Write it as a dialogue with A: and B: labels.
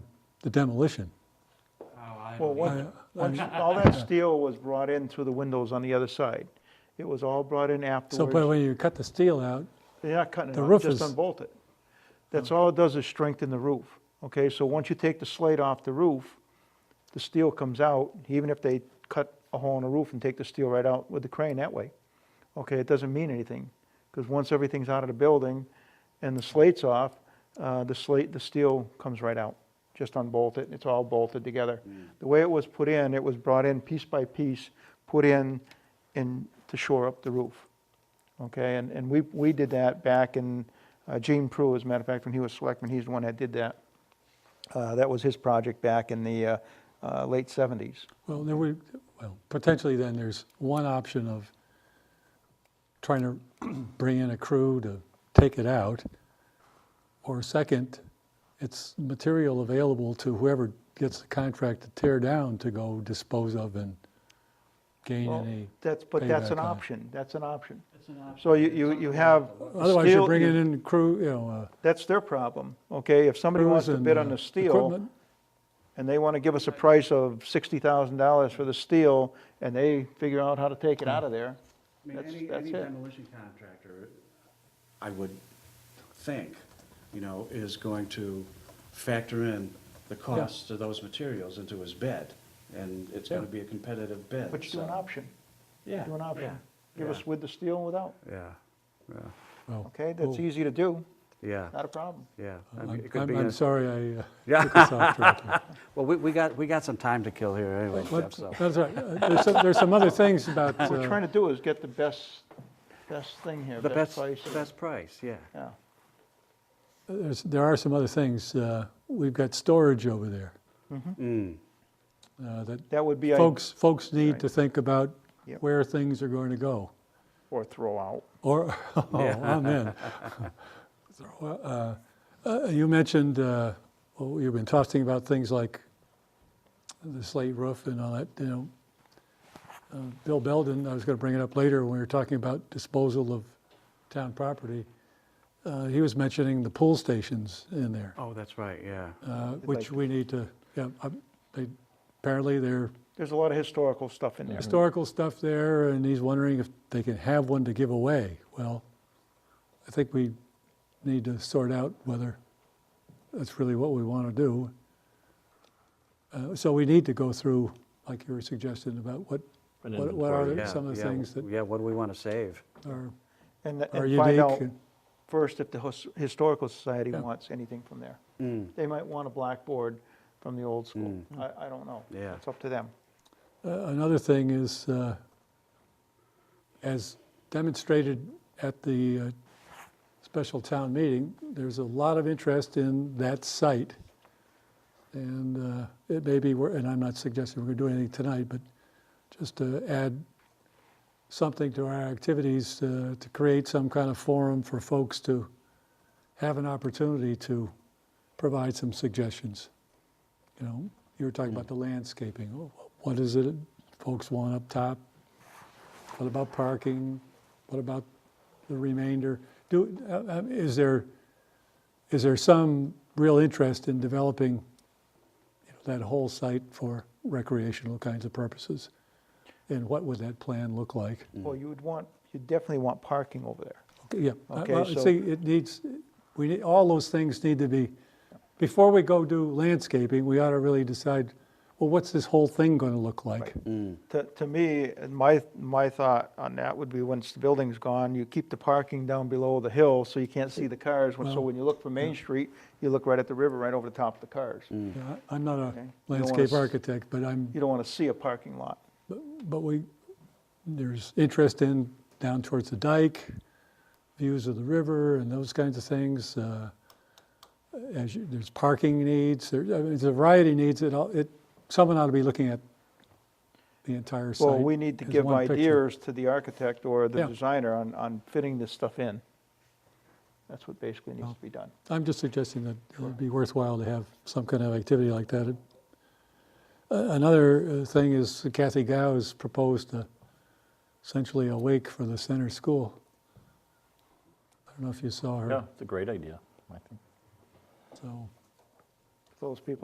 A: the demolition.
B: Oh,
C: Well, once,
A: I-
C: once all that steel was brought in through the windows on the other side. It was all brought
A: So,
C: in
A: but
C: afterwards.
A: when you cut the steel out,
C: They're not cutting it
A: the
C: off,
A: roof
C: just
A: is- Oh.
C: unbolt it. That's all it does is strengthen the roof, okay? So once you take the slate off the roof, the steel comes out, even if they cut a hole in the roof and take the steel right out with the crane that way. Okay, it doesn't mean anything, because once everything's out of the building and the slate's off, uh, the slate, the steel comes right out. Just unbolt it, it's all bolted together. The way it was put in, it was brought in piece by piece, put in, in, to shore up the roof. Okay, and, and we, we did that back in, uh, Gene Prue, as a matter of fact, when he was selectman, he's the one that did that. Uh, That was his project back in the uh, uh, late 70s.
A: well, then we, well, potentially then there's one option of trying to bring in a crew to take it out. Or second, it's material available to whoever gets the contract to tear down to go dispose of and gain
C: Well,
A: any.
C: That's, but that's
A: payback
C: an
A: on it.
C: option, that's an option. So you, you you have
A: Otherwise,
C: steel-
A: you're bringing
C: you-
A: in crew, you know, uh,
C: That's their problem, okay? If somebody wants to
A: crews
C: bid
A: and,
C: on
A: uh,
C: the steel,
A: equipment.
C: and they want to give us a price of $60,000 for the steel, and they figure out how to take it out of there,
B: I mean,
C: That's-
B: any,
C: that's
B: any
C: it.
B: demolition contractor, I would think, you know, is going to factor in the costs of those materials into his bid, and it's gonna be a competitive bid,
C: but you do an
B: so-
C: option,
B: Yeah.
C: do an option. Give
B: yeah.
C: us with the steel and without,
B: Yeah, yeah,
A: well,
C: okay? That's
A: cool.
C: easy to do,
D: Yeah,
C: not a problem.
D: yeah. I mean,
A: I'm,
D: it could
A: I'm
D: be
A: I'm
D: a-
A: sorry I uh,
D: Yeah.
A: took us off track here.
D: Well, we, we got, we got some time to kill here anyway, Jeff,
A: What-
D: so.
A: That's right. Uh, There's some, there's some other things about,
C: What we're
A: uh,
C: trying to do is get the best, best thing here,
D: The best,
C: best price.
D: the best price, yeah.
C: Yeah,
A: there's, there are some other things. Uh, We've got storage over there
D: Mm,
A: uh, that
C: that would be, a-
A: folks, folks need to think about
C: Yep.
A: where things are going to go.
C: or throw out.
A: Or, oh, amen. Uh, uh, You mentioned, uh, well, you've been talking about things like the slate roof and all that, you know. Uh, Bill Belden, I was going to bring it up later when we were talking about disposal of town property. Uh, He was mentioning the pool stations in there,
D: Oh, that's right, yeah.
A: uh,
C: It's
A: which
C: like-
A: we need to, yeah, um, they- apparently they're
C: There's a lot of historical stuff in there.
A: historical stuff there, and he's wondering if they can have one to give away. Well, I think we need to sort out whether that's really what we want to do. Uh, So we need to go through, like you were suggesting, about what, what what are the-
D: Yeah,
A: some of the
D: yeah,
A: things that
D: Yeah, what do we want to save?
A: are
C: And,
A: are
C: and find out
A: unique.
C: first if the his- Historical Society
A: Yeah.
C: wants anything from there.
D: Mm,
C: They might want a blackboard from the old school. I, I don't know.
D: Yeah.
C: It's up to them.
A: Uh, Another thing is, uh, as demonstrated at the uh, special town meeting, there's a lot of interest in that site. And uh, it may be, wor- and I'm not suggesting we're going to do anything tonight, but just to add something to our activities, uh, to create some kind of forum for folks to have an opportunity to provide some suggestions. You know, you were talking about the landscaping. Wh- What is it folks want up top? What about parking? What about the remainder? Do, uh, uh, is there, is there some real interest in developing you know, that whole site for recreational kinds of purposes? And what would that plan look like?
D: Mm.
C: Well, you would want, you definitely want parking over there.
A: Okay, Yeah, Uh,
C: Okay,
A: well,
C: so-
A: see, it needs, we, need all those things need to be, before we go do landscaping, we ought to really decide, well, what's this whole thing going to look like?
D: mm,
C: To, to me, and my, my thought on that would be once the building's gone, you keep the parking down below the hill so you can't see the cars. When- So
A: Well,
C: when you look from Main Street, you look right at the river, right over the top of the cars. You
A: Yeah, I- I'm not
C: Okay. You
A: a
C: don't wanna
A: landscape
C: s-
A: architect, but I'm,
C: don't want to see a parking lot.
A: but we, there's interest in down towards the dike, views of the river and those kinds of things. uh, As you, there's parking needs, there, I mean, there's a variety of needs, it, all- it, someone ought to be looking at the entire site.
C: Well, we need to
A: as
C: give
A: one picture.
C: ideas to the architect or the
A: Yeah.
C: designer on, on fitting this stuff in. That's what basically needs
A: Well,
C: to be done.
A: I'm just suggesting that it would be worthwhile to have some kind of activity like that. It- a- Another uh, thing is Kathy Gao has proposed a- essentially a wake for the center school. I don't know if you saw
E: Yeah,
A: her,
E: it's a great idea, I think.
A: so.
C: Those people